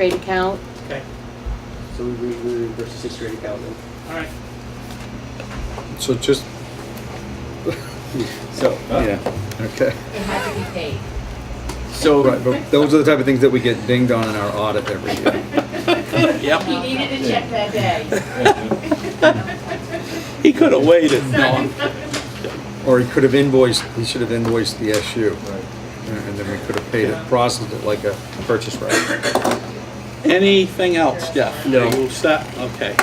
grade account. Okay, So we reimburse the sixth grade account then. all right. So just, So, yeah, okay. It had to be paid. so, Right, but those are the type of things that we get dinged on in our audit every year. He needed a check that day. He could have waited. Or he could have invoiced, he should have invoiced the SU. And then we could have paid it, processed it like a purchase right. Anything else, Jeff? No. We'll stop, okay.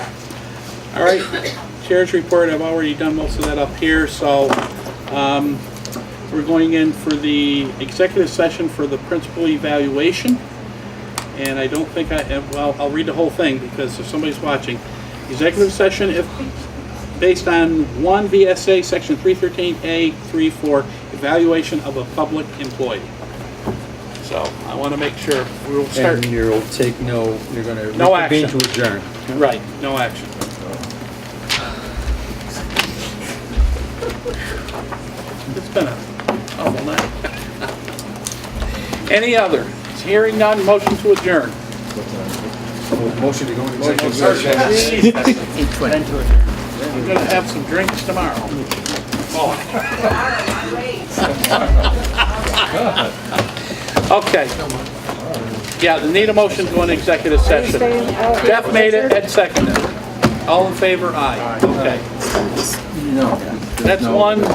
All right, chair's report, I've already done most of that up here, so um, we're going in for the executive session for the principal evaluation. And I don't think I, and, well, I'll read the whole thing because if somebody's watching. Executive session if, based on one VSA, section 313A, 34, evaluation of a public employee. So I want to make sure, we'll start. And you'll take no, you're gonna. No reconvene action. To adjourn. Right, no action. It's been a awful night. Any other? Hearing none, motion to adjourn. Motion to go into executive session. Jeez, We're gonna have some drinks tomorrow. Oh. Okay. Yeah, they need a motion to an executive session. Jeff made it, Ed seconded it. All in favor, aye. Okay. That's one.